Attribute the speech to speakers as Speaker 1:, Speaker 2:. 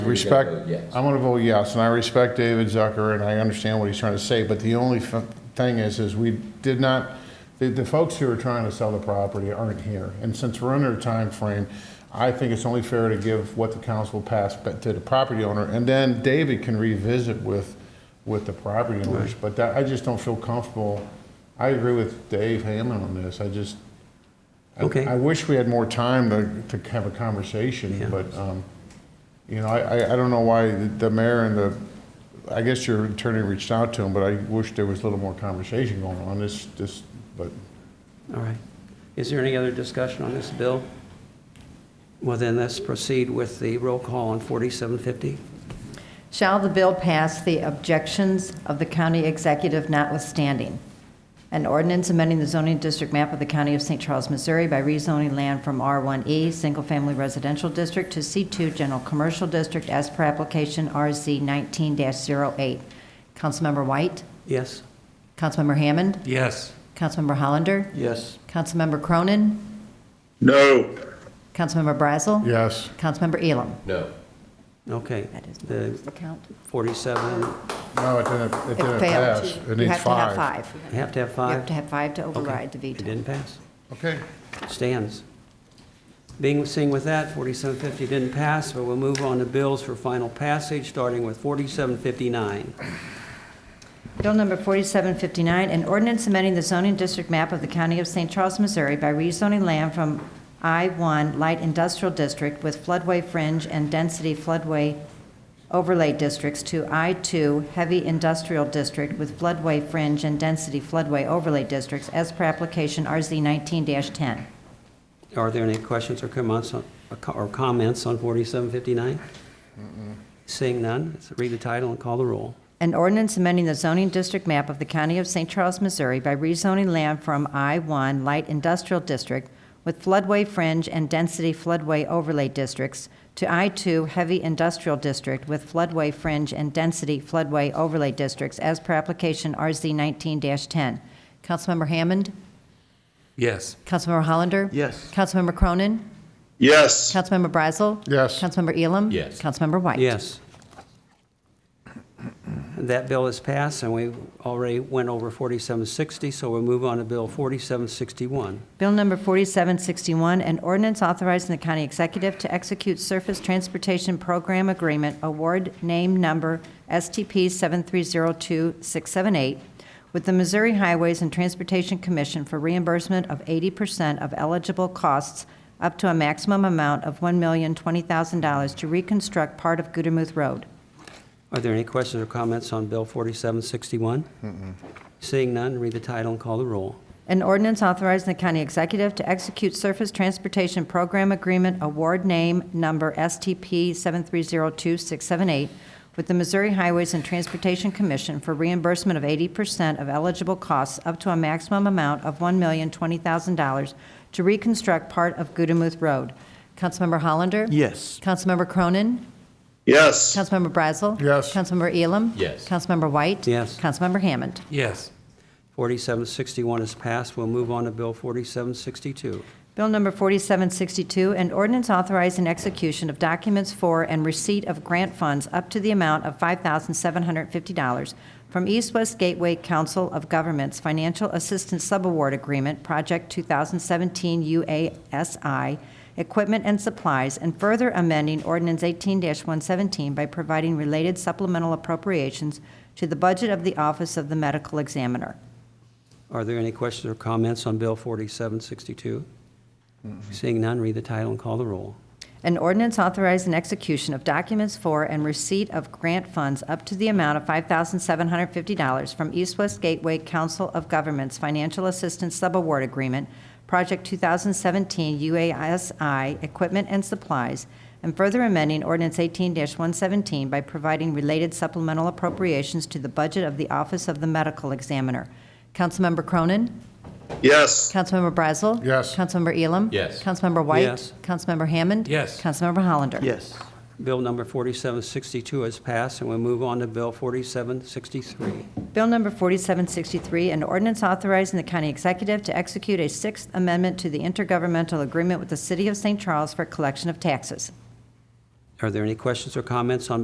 Speaker 1: Respect,
Speaker 2: You gotta vote yes.
Speaker 1: I'm gonna vote yes, and I respect David Zucker, and I understand what he's trying to say, but the only f- thing is, is we did not, the, the folks who are trying to sell the property aren't here, and since we're under a time frame, I think it's only fair to give what the council passed ba- to the property owner, and then David can revisit with, with the property owners, but that, I just don't feel comfortable. I agree with Dave Hammond on this, I just, I-
Speaker 3: Okay.
Speaker 1: I wish we had more time to, to have a conversation,
Speaker 3: Yeah.
Speaker 1: but, um, you know, I, I- I don't know why the- the mayor and the, I guess your attorney reached out to him, but I wish there was a little more conversation going on this, this, but
Speaker 3: All right. Is there any other discussion on this bill? Well, then let's proceed with the roll call on 4750.
Speaker 4: Shall the bill pass the objections of the county executive notwithstanding? An ordinance amending the zoning district map of the county of St. Charles, Missouri by rezoning land from R1E Single Family Residential District to C2 General Commercial District as per application RZ 19-08. Councilmember White?
Speaker 3: Yes?
Speaker 4: Councilmember Hammond?
Speaker 3: Yes.
Speaker 4: Councilmember Hollander?
Speaker 3: Yes.
Speaker 4: Councilmember Cronin?
Speaker 5: No.
Speaker 4: Councilmember Brazel?
Speaker 1: yes,
Speaker 4: Councilmember Elam?
Speaker 2: No.
Speaker 3: Okay.
Speaker 4: That is my
Speaker 3: The
Speaker 4: count.
Speaker 3: 47,
Speaker 1: no, it didn't, it
Speaker 4: It
Speaker 1: didn't
Speaker 4: failed.
Speaker 1: pass. It
Speaker 4: You
Speaker 1: needs
Speaker 4: have to have
Speaker 1: five.
Speaker 4: five.
Speaker 3: you have to have
Speaker 4: You
Speaker 3: five?
Speaker 4: have to have five to
Speaker 3: Okay.
Speaker 4: override the
Speaker 3: It
Speaker 4: veto.
Speaker 3: didn't pass.
Speaker 1: Okay,
Speaker 3: Stands. Being, seeing with that, 4750 didn't pass, but we'll move on to bills for final passage, starting with 4759.
Speaker 4: Bill number 4759, an ordinance amending the zoning district map of the County of St. Charles, Missouri by rezoning land from I-1 Light Industrial District with floodway fringe and density floodway overlay districts to I-2 Heavy Industrial District with floodway fringe and density floodway overlay districts as per application RZ 19-10.
Speaker 3: Are there any questions or comments, on- or comments on 4759? Seeing none, let's read the title and call the roll.
Speaker 4: An ordinance amending the zoning district map of the County of St. Charles, Missouri by rezoning land from I-1 Light Industrial District with floodway fringe and density floodway overlay districts to I-2 Heavy Industrial District with floodway fringe and density floodway overlay districts as per application RZ 19-10. Councilmember Hammond?
Speaker 6: Yes.
Speaker 4: Councilmember Hollander?
Speaker 6: Yes.
Speaker 4: Councilmember Cronin?
Speaker 5: Yes.
Speaker 4: Councilmember Brazel?
Speaker 1: yes,
Speaker 4: Councilmember Elam?
Speaker 2: Yes.
Speaker 4: Councilmember White?
Speaker 3: Yes. That bill is passed, and we already went over 4760, so we'll move on to Bill 4761.
Speaker 4: Bill number 4761, an ordinance authorizing the county executive to execute Surface Transportation Program Agreement Award Name Number STP 7302678 with the Missouri Highways and Transportation Commission for reimbursement of 80% of eligible costs up to a maximum amount of $1,020,000 to reconstruct part of Gudermouth Road.
Speaker 3: Are there any questions or comments on Bill 4761? Seeing none, read the title and call the roll.
Speaker 4: An ordinance authorizing the county executive to execute Surface Transportation Program Agreement Award Name Number STP 7302678 with the Missouri Highways and Transportation Commission for reimbursement of 80% of eligible costs up to a maximum amount of $1,020,000 to reconstruct part of Gudemuth Road. Councilmember Hollander?
Speaker 6: Yes.
Speaker 4: Councilmember Cronin?
Speaker 5: Yes.
Speaker 4: Councilmember Brazel?
Speaker 1: Yes.
Speaker 4: Councilmember Elam?
Speaker 2: Yes.
Speaker 4: Councilmember White?
Speaker 3: Yes.
Speaker 4: Councilmember Hammond?
Speaker 6: Yes.
Speaker 3: 4761 is passed. We'll move on to Bill 4762.
Speaker 4: Bill number 4762, an ordinance authorizing execution of documents for and receipt of grant funds up to the amount of $5,750 from East West Gateway Council of Governments Financial Assistance Subaward Agreement, Project 2017 UASI, Equipment and Supplies, and further amending Ordinance 18-117 by providing related supplemental appropriations to the budget of the Office of the Medical Examiner.
Speaker 3: Are there any questions or comments on Bill 4762? Seeing none, read the title and call the roll.
Speaker 4: An ordinance authorizing execution of documents for and receipt of grant funds up to the amount of $5,750 from East West Gateway Council of Governments Financial Assistance Subaward Agreement, Project 2017 UASI Equipment and Supplies, and further amending Ordinance 18-117 by providing related supplemental appropriations to the budget of the Office of the Medical Examiner. Councilmember Cronin?
Speaker 5: Yes.
Speaker 4: Councilmember Brazel?
Speaker 1: Yes.
Speaker 4: Councilmember Elam?
Speaker 2: Yes.
Speaker 4: Councilmember White?
Speaker 3: Yes.
Speaker 4: Councilmember Hammond?
Speaker 6: Yes.
Speaker 4: Councilmember Hollander?
Speaker 6: Yes.
Speaker 3: Bill number 4762 is passed, and we'll move on to Bill 4763.
Speaker 4: Bill number 4763, an ordinance authorizing the county executive to execute a Sixth Amendment to the intergovernmental agreement with the City of St. Charles for collection of taxes.
Speaker 3: Are there any questions or comments on